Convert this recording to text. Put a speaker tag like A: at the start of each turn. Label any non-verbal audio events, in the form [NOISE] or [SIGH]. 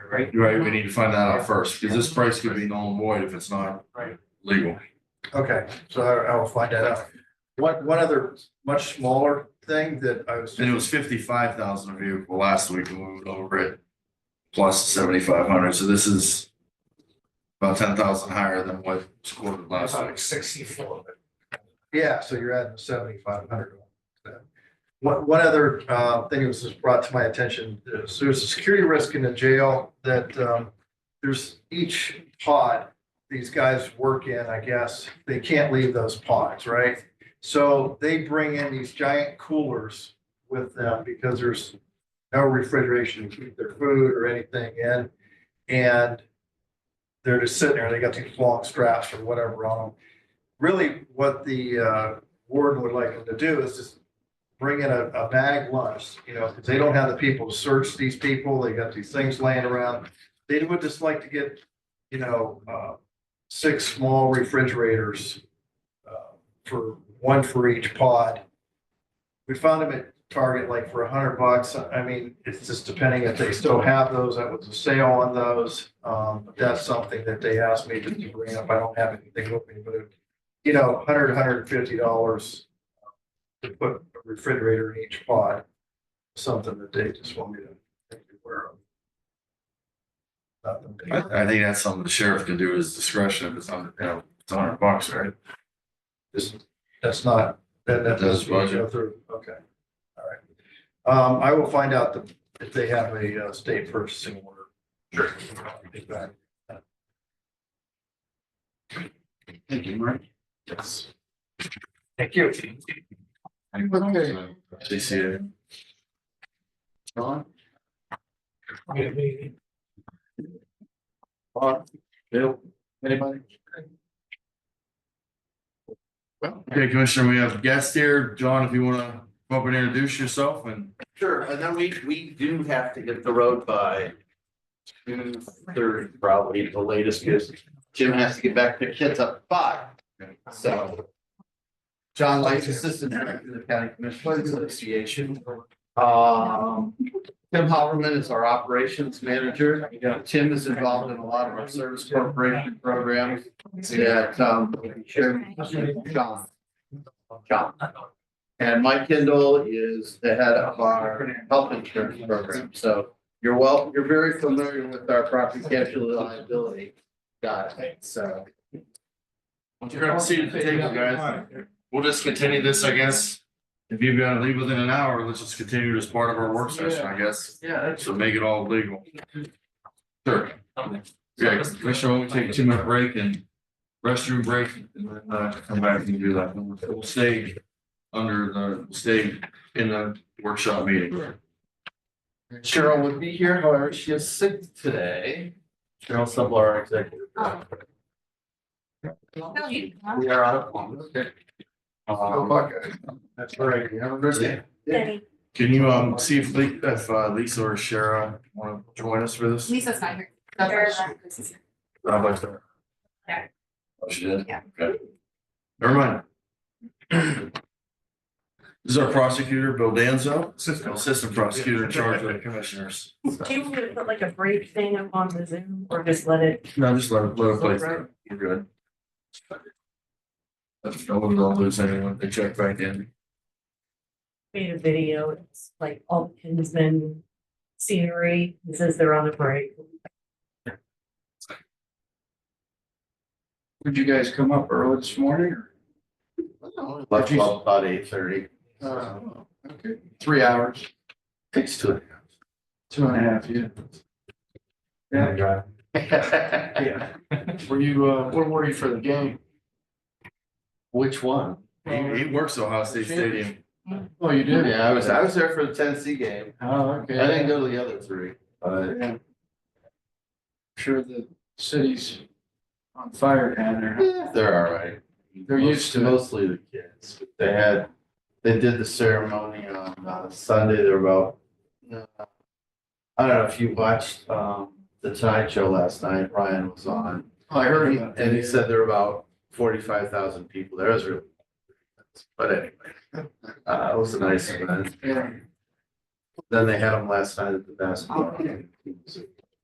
A: right?
B: Right, we need to find that out first, because this price could be null and void if it's not
A: Right.
B: legal.
C: Okay, so I I will find that out. One, one other much smaller thing that I was.
B: And it was fifty-five thousand a vehicle last week, and we moved over it. Plus seventy-five hundred, so this is about ten thousand higher than what was quoted last
C: Uh-huh.
A: About
B: week.
A: Sixty-four, but
C: Yeah, so you're adding seventy-five hundred. One, one other, uh, thing that was just brought to my attention, is there's a security risk in the jail that, um, there's each pod these guys work in, I guess, they can't leave those pods, right? So they bring in these giant coolers with them because there's no refrigeration to keep their food or anything in. And they're just sitting there, they got these long straps or whatever on them really what the uh, warden would like them to do is just bring in a, a bag lunch, you know, because they don't have the people to search these people. They got these things laying around. They would just like to get, you know, uh, six small refrigerators uh, for, one for each pod. We found them at Target like for a hundred bucks. I mean, it's just depending if they still have those. That was a sale on those. Um, but That's something that they asked me to bring up. I don't have anything with me, but it you know, hundred, hundred and fifty dollars to put a refrigerator in each pod, something that they just want me to make you aware of. Nothing big.
B: I, I think that's something the sheriff can do at his discretion, if it's under, you know, it's a hundred bucks, right?
C: Just- That's not, that, that
B: That's
C: does go
B: budget.
C: through, okay, all right. Um, I will find out the- if they have a uh, state purchasing order. Sure.
B: Thank you, Mike.
A: thank you.
B: CCA. John?
A: We-
B: Bob? Bill? Anybody? Well, okay, Commissioner, we have guests here. John, if you wanna come up and introduce yourself and
D: Sure, and then we, we do have to hit the road by June third, probably the latest, because Jim has to get back to the kids up five, so. John Light, Assistant Director of the County Commissioners Association. Um, Tim Hoverman is our Operations Manager. You know, Tim is involved in a lot of our service corporation programs that, um, Sheriff John. John. And Mike Kendall is the head of our health insurance program, so you're well, you're very familiar with our property casualty liability. Got it, so.
B: you're gonna see the table, guys. We'll just continue this, I guess. If you've gotta leave within an hour, let's just continue as part of our work session, I guess.
D: Yeah.
B: So make it all legal. Sure. Yeah, Commissioner, we'll take a two minute break and restroom break and then uh come back and do that. We'll stay under the, we'll stay in the workshop meeting.
D: Cheryl would be here, however, she is sick today. Cheryl Subler, our executive. director. We are out of one, okay.
E: Oh,
C: Go
D: Um,
C: Buckeyes. That's right.
D: you have a good day.
F: Betty,
B: Can you um see if Lee, if uh, Lisa or Shara wanna join us for this?
F: Lisa's not here.
B: I'd like to.
F: Yeah.
B: Oh, she did?
F: Yeah.
B: Okay. Never mind. This is our prosecutor, Bill Danzo, assistant prosecutor in charge of the commissioners.
G: Can we put like a break thing up on the Zoom or just let it?
B: No, just let it, let it play through. You're good. That's- No one will lose anyone. They check back in.
G: Made a video, it's like all the Kinsman scenery, it says they're on a break.
E: Would you guys come up early this morning? or- Oh,
D: Left about about eight thirty,
E: Uh, okay, three hours,
D: takes two.
E: two and a half, yeah. Yeah. Were you, uh, where were you for the game?
D: [LAUGHS] Which one?
B: He, he works at Ohio State Stadium.
E: Oh, you did?
D: Yeah, I was, I was there for the Tennessee game.
E: Oh,
D: I
E: okay.
D: didn't go to the other three, but
E: Yeah. Sure the city's on fire down there.
D: eh, they're all right.
E: They're used to it.
D: Mostly the kids. They had, they did the ceremony on uh, Sunday. There were about, uh, I don't know if you watched um, the Tonight Show last night. Ryan was on.
E: I heard about that.
D: And he said there were about forty-five thousand people there. It was really, but anyway, uh, it was a nice event.
E: Yeah.
D: Then they had them last night at the basketball game.